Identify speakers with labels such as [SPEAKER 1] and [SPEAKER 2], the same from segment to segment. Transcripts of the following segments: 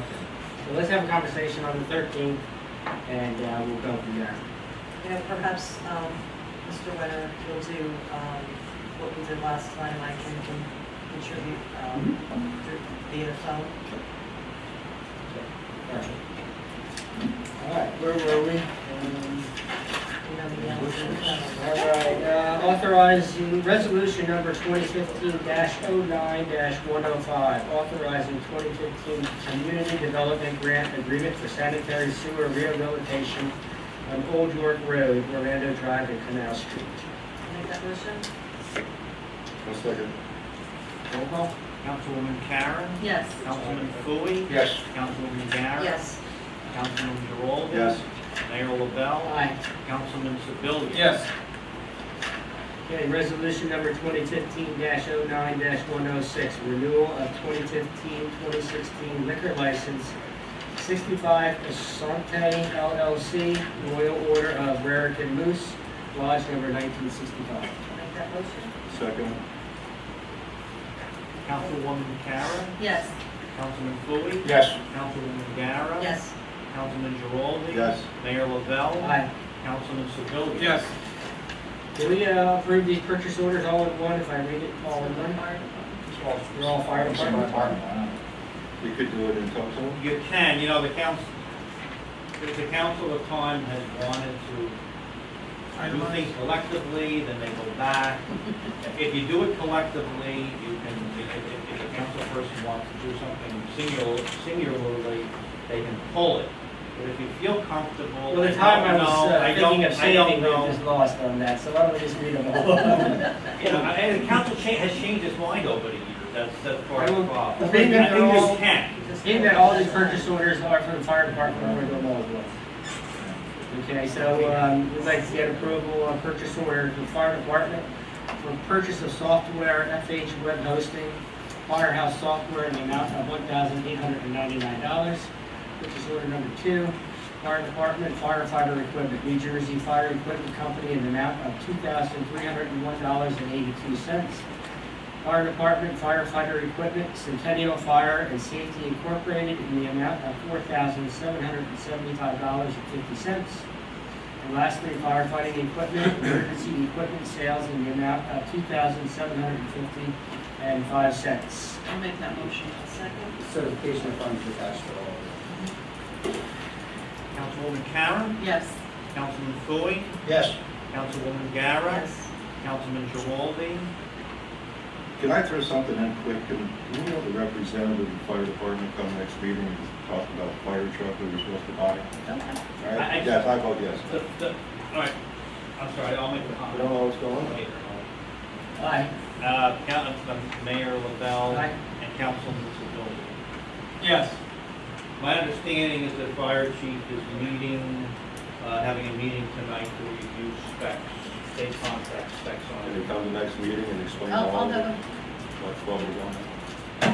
[SPEAKER 1] So let's have a conversation on the thirteenth, and uh, we'll go from there.
[SPEAKER 2] And perhaps um, Mr. Wenner will do um, what we did last time, I can con- contribute um,
[SPEAKER 1] Mm-hmm.
[SPEAKER 2] through- via phone.
[SPEAKER 1] All right, where were we? Um,
[SPEAKER 2] You know, the answer.
[SPEAKER 1] All right, uh, authorizing resolution number twenty fifteen 9 one oh five, authorizing twenty fifteen community development grant agreement for sanitary sewer rehabilitation on Old York Road, Orlando Drive, and Canal Street.
[SPEAKER 2] Make that motion?
[SPEAKER 3] One second.
[SPEAKER 1] Roll call?
[SPEAKER 4] Councilwoman Karen,
[SPEAKER 2] Yes.
[SPEAKER 4] Councilman Fooey,
[SPEAKER 3] Yes.
[SPEAKER 4] Councilwoman Garrett.
[SPEAKER 2] Yes.
[SPEAKER 4] Councilman Geraldo.
[SPEAKER 3] Yes.
[SPEAKER 4] Mayor LaBelle.
[SPEAKER 1] Aye.
[SPEAKER 4] Councilman Sebelia.
[SPEAKER 1] Okay, resolution number twenty fifteen 9 one oh six, renewal of 2015-2016 liquor license, sixty-five Asante LLC, Royal Order of Raritan Moose, lodge number nineteen sixty-five.
[SPEAKER 2] Make that motion?
[SPEAKER 3] Second.
[SPEAKER 4] Councilwoman Karen,
[SPEAKER 2] Yes.
[SPEAKER 4] Councilman Fooey,
[SPEAKER 3] Yes.
[SPEAKER 4] Councilwoman Garrett.
[SPEAKER 2] Yes.
[SPEAKER 4] Councilman Geraldo.
[SPEAKER 3] Yes.
[SPEAKER 4] Mayor LaBelle.
[SPEAKER 1] Aye.
[SPEAKER 4] Councilman Sebelia.
[SPEAKER 1] Can we uh, approve these purchase orders all in one, if I read it all in one? They're all fire department?
[SPEAKER 3] You could do it in total.
[SPEAKER 4] You can, you know, the council, the the council of time has wanted to do things collectively, then they go back. If you do it collectively, you can, if, if- if a council person wants to do something singular- singularly, they can pull it. But if you feel comfortable,
[SPEAKER 1] Well,
[SPEAKER 4] I
[SPEAKER 1] the time I
[SPEAKER 4] don't
[SPEAKER 1] was
[SPEAKER 4] know,
[SPEAKER 1] uh,
[SPEAKER 4] I
[SPEAKER 1] thinking
[SPEAKER 4] don't,
[SPEAKER 1] of
[SPEAKER 4] I don't
[SPEAKER 1] saving, we
[SPEAKER 4] know.
[SPEAKER 1] just lost on that, so why don't we just read them all?
[SPEAKER 4] You know, and the council cha, has changed its mind over the years, that's, that's part of the problem.
[SPEAKER 1] I think
[SPEAKER 4] I
[SPEAKER 1] that
[SPEAKER 4] think
[SPEAKER 1] they're
[SPEAKER 4] you
[SPEAKER 1] all-
[SPEAKER 4] can.
[SPEAKER 1] Being that all these purchase orders are for the fire department, we're going all at once. Okay, so um, we'd like to get approval on purchase order for the fire department for purchase of software, FH web hosting, firehouse software in the amount of one thousand eight hundred and ninety-nine dollars. Purchase order number two, fire department firefighter equipment, New Jersey Fire Equipment Company in the amount of two thousand three hundred and one dollars and eighty-two cents. Fire Department firefighter equipment, Centennial Fire and Safety Incorporated in the amount of four thousand seven hundred and seventy-five dollars and fifty cents. And lastly, firefighting equipment, emergency equipment sales in the amount of two thousand seven hundred and fifty and five cents.
[SPEAKER 2] I'll make that motion. Second?
[SPEAKER 5] Certification of funds attached to all of this.
[SPEAKER 4] Councilwoman Karen,
[SPEAKER 2] Yes.
[SPEAKER 4] Councilman Fooey,
[SPEAKER 3] Yes.
[SPEAKER 4] Councilwoman Gara,
[SPEAKER 2] Yes.
[SPEAKER 4] Councilman Giraldi.
[SPEAKER 3] Can I throw something in quick? Can can we have the representative of the fire department come next meeting and talk about the fire truck we were supposed to buy? All
[SPEAKER 4] I- I-
[SPEAKER 3] right? Yes, I vote yes.
[SPEAKER 4] The, the, all right, I'm sorry, I'll make the
[SPEAKER 3] I
[SPEAKER 4] comment.
[SPEAKER 3] don't know what's going on.
[SPEAKER 1] Aye.
[SPEAKER 4] Uh, Coun- uh, Mayor LaBelle
[SPEAKER 1] Aye.
[SPEAKER 4] and Councilman Sedilli.
[SPEAKER 1] Yes.
[SPEAKER 4] My understanding is that Fire Chief is meeting, uh, having a meeting tonight to review specs, state contract specs on
[SPEAKER 3] Can
[SPEAKER 4] it.
[SPEAKER 3] you come to next meeting and explain
[SPEAKER 2] I'll,
[SPEAKER 3] all
[SPEAKER 2] Oh, I'll
[SPEAKER 3] of
[SPEAKER 2] have
[SPEAKER 3] it?
[SPEAKER 2] him.
[SPEAKER 3] What's what we're on?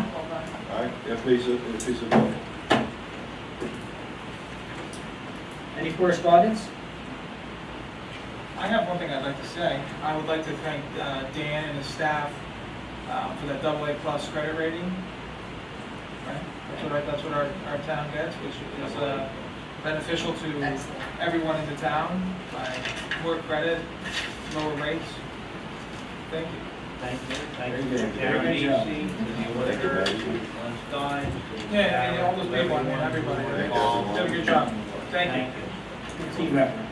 [SPEAKER 2] Hold on.
[SPEAKER 3] All right, if he's, if he's available.
[SPEAKER 1] Any correspondence?
[SPEAKER 6] I have one thing I'd like to say. I would like to thank uh, Dan and his staff uh, for that double A plus credit rating. Right? That's what, our- that's what our, our town gets, which is uh, beneficial to
[SPEAKER 2] Excellent.
[SPEAKER 6] everyone in the town by more credit, lower rates. Thank you.
[SPEAKER 4] Thank you, thank
[SPEAKER 3] Very
[SPEAKER 4] you.
[SPEAKER 3] good.
[SPEAKER 4] Karen
[SPEAKER 1] Very good job.
[SPEAKER 4] Easy, Mr.
[SPEAKER 3] Thank you,
[SPEAKER 4] Whitaker,
[SPEAKER 3] Mary.
[SPEAKER 4] Glenn Stein. Mr.
[SPEAKER 6] Yeah, yeah, yeah, all
[SPEAKER 4] Garrett,
[SPEAKER 6] those people, I mean, everybody.
[SPEAKER 4] involved.
[SPEAKER 6] Did a good job. Thank you.
[SPEAKER 4] Thank you.
[SPEAKER 1] Team effort.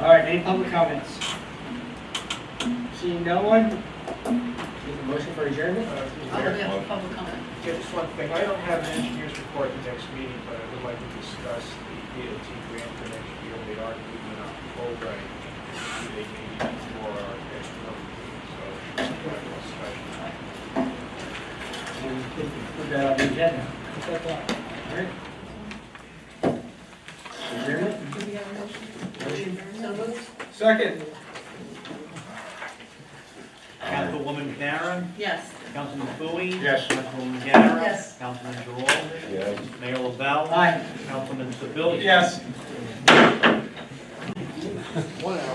[SPEAKER 1] All right, any public comments? Seeing no one? Take a motion for adjournment?
[SPEAKER 2] I'll have a public comment.
[SPEAKER 7] Yeah, just one thing, I don't have an engineer's report the next meeting, but I would like to discuss the DOT grant for next year, they are moving up full rate. They may be before our next month, so that's a special.
[SPEAKER 1] And we can Put that on the agenda. All right. Adjournment?
[SPEAKER 2] So moved?
[SPEAKER 6] Second.
[SPEAKER 4] Councilwoman Karen,
[SPEAKER 2] Yes.
[SPEAKER 4] Councilman Fooey?
[SPEAKER 3] Yes.
[SPEAKER 4] Councilman Garrett?
[SPEAKER 2] Yes.
[SPEAKER 4] Councilman Geraldo?
[SPEAKER 3] Yes.
[SPEAKER 4] Mayor LaBelle?
[SPEAKER 1] Aye.
[SPEAKER 4] Councilman Sebelia?
[SPEAKER 6] Yes.
[SPEAKER 3] One hour.